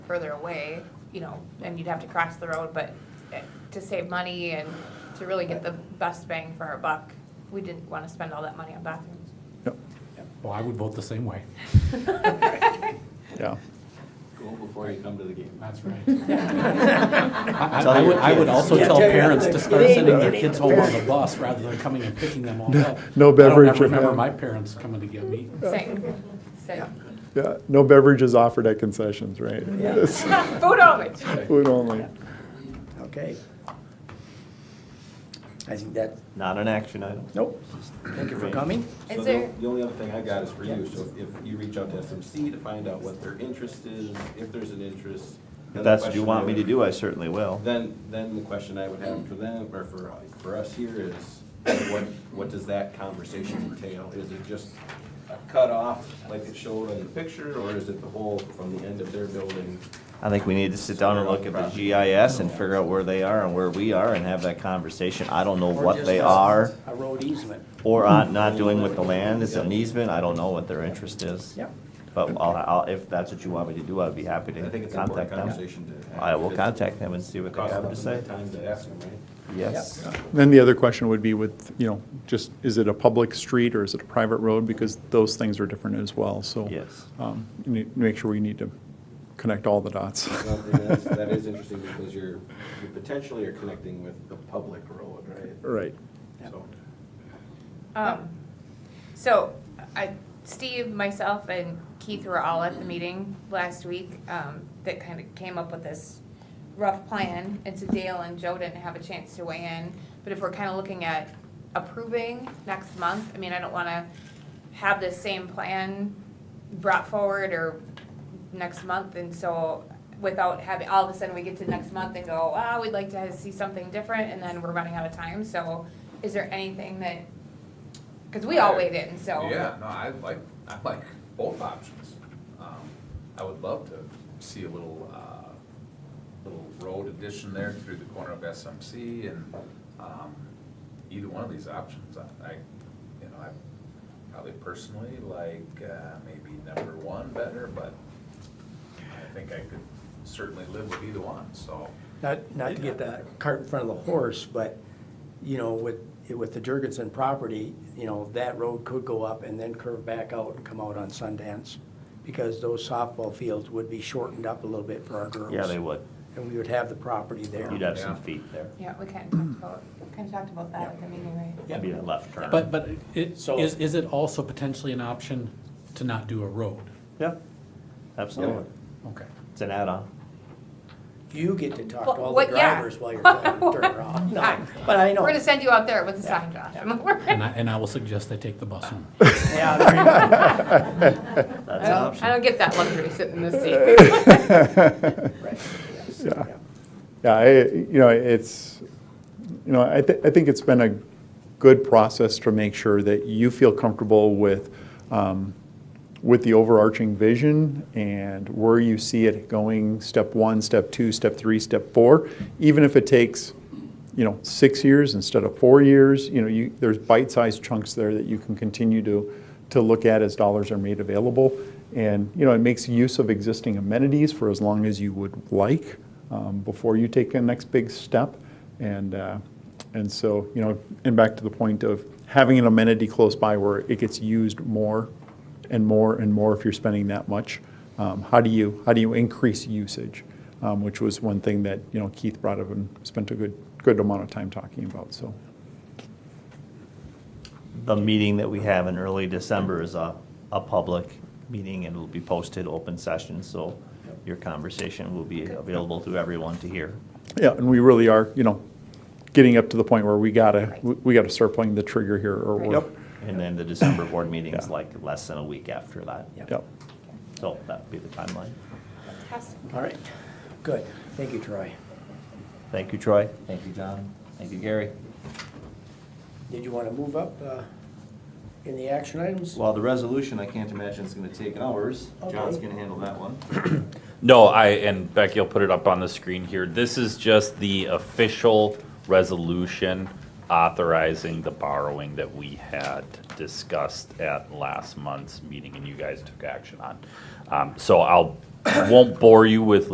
further away, you know, and you'd have to cross the road, but eh, to save money and to really get the best bang for our buck, we didn't wanna spend all that money on bathrooms. Yep, Well, I would vote the same way. yeah. Go before you come to the game. That's right. I Tell I would, your I would kids. also Yeah, tell tell your parents to kids. start It ain't- sending their it ain't kids a home on the parent. bus rather than coming and picking them all up. no I beverage don't ever remember at my hand. parents coming to get me. Same, same. Yeah, no beverages offered at concessions, right? Yeah. It's Food only. Food only. Okay. I think that, Not an action item. nope, thank you for coming. Is So the, there- the only other thing I got is for you, Yeah. so if you reach out to SMC to find out what their interest is, if there's an interest. then If the that's what you question I want me to would- do, I certainly will. Then, then the question I would have for them, or for, for us here is, what, what does that conversation entail? Is it just a cutoff like it showed on the picture, or is it the whole from the end of their building? I think we need to sit down and look at the GIS and figure out where they are and where we are and have that conversation. I don't know Or what just they a- are A road easement. or are not doing with the land. Is it an easement? I don't know what their interest is. Yep. But I'll, I'll, if that's what you want me to do, I'd be happy I think to it's an important contact them. conversation to have. I will contact them and see what they Cost have them to say. time to ask them, right? Yes. Then the other question would be with, you know, just, is it a public street or is it a private road? Because those things are different as well, so. Yes. um, You need to make sure we need to connect all the dots. Well, and that's- That is interesting because you're, you potentially are connecting with the public road, right? Right. So, Um, so, I, Steve, myself, and Keith were all at the meeting last week, um, that kind of came up with this rough plan, and so Dale and Joe didn't have a chance to weigh in, but if we're kind of looking at approving next month, I mean, I don't wanna have the same plan brought forward or next month, and so without having, all of a sudden, we get to next month and go, ah, we'd like to see something different, and then we're running out of time, so is there anything that, because we all weighed in, so. Yeah, no, I like, I like both options. Um, I would love to see a little, uh, little road addition there through the corner of SMC and, um, either one of these options, I, I, you know, I probably personally like, uh, maybe number one better, but I think I could certainly live with either one, so. Not, not to get the cart in front of the horse, but, you know, with, with the Jurgensen property, you know, that road could go up and then curve back out and come out on Sundance, because those softball fields would be shortened up a little bit for our girls. Yeah, they would. And we would have the property there. You'd have some Yeah. feet there. Yeah, we kind of talked about, kind of talked about that at the meeting, right? It'd be a left turn. But, but it, So- is, is it also potentially an option to not do a road? Yeah, absolutely. Okay. It's an add-on. You get to talk Well, to all the what- yeah. drivers while you're trying to turn around. No, but I know. We're gonna send you out there with a sign, Josh. And I, and I will suggest they take the bus home. Yeah, there you go. That's I an option. don't get that luxury sitting in this seat. Right, yes, Yeah. yeah. Yeah, I, you know, it's, you know, I, th- I think it's been a good process to make sure that you feel comfortable with, um, with the overarching vision and where you see it going, step one, step two, step three, step four, even if it takes, you know, six years instead of four years, you know, you, there's bite-sized chunks there that you can continue to, to look at as dollars are made available. And, you know, it makes use of existing amenities for as long as you would like um, before you take a next big step. And, uh, and so, you know, and back to the point of having an amenity close by where it gets used more and more and more if you're spending that much. Um, how do you how do you increase usage, um, which was one thing that you know Keith brought up and spent a good good amount of time talking about. So The meeting that we have in early December is a, a public meeting and it'll be posted open session, so your conversation will be available to everyone to hear. yeah, and we really are you know getting up to the point where we gotta we, we gotta start pulling the trigger here or we're Yep. And then the December board meeting is Yeah. like less than a week after that. Yep. yep. So that'd be the timeline. All right, good. Thank you, Troy. Thank you, Troy. Thank you, John. Thank you, Gary. Did you want to move up uh, in the action items? Well, the resolution, I can't imagine it's gonna take hours. John's Okay. gonna handle that one. No, I, and Becky will put it up on the screen here. This is just the official resolution authorizing the borrowing that we had discussed at last month's meeting and you guys took action on. Um, So I'll, won't bore you with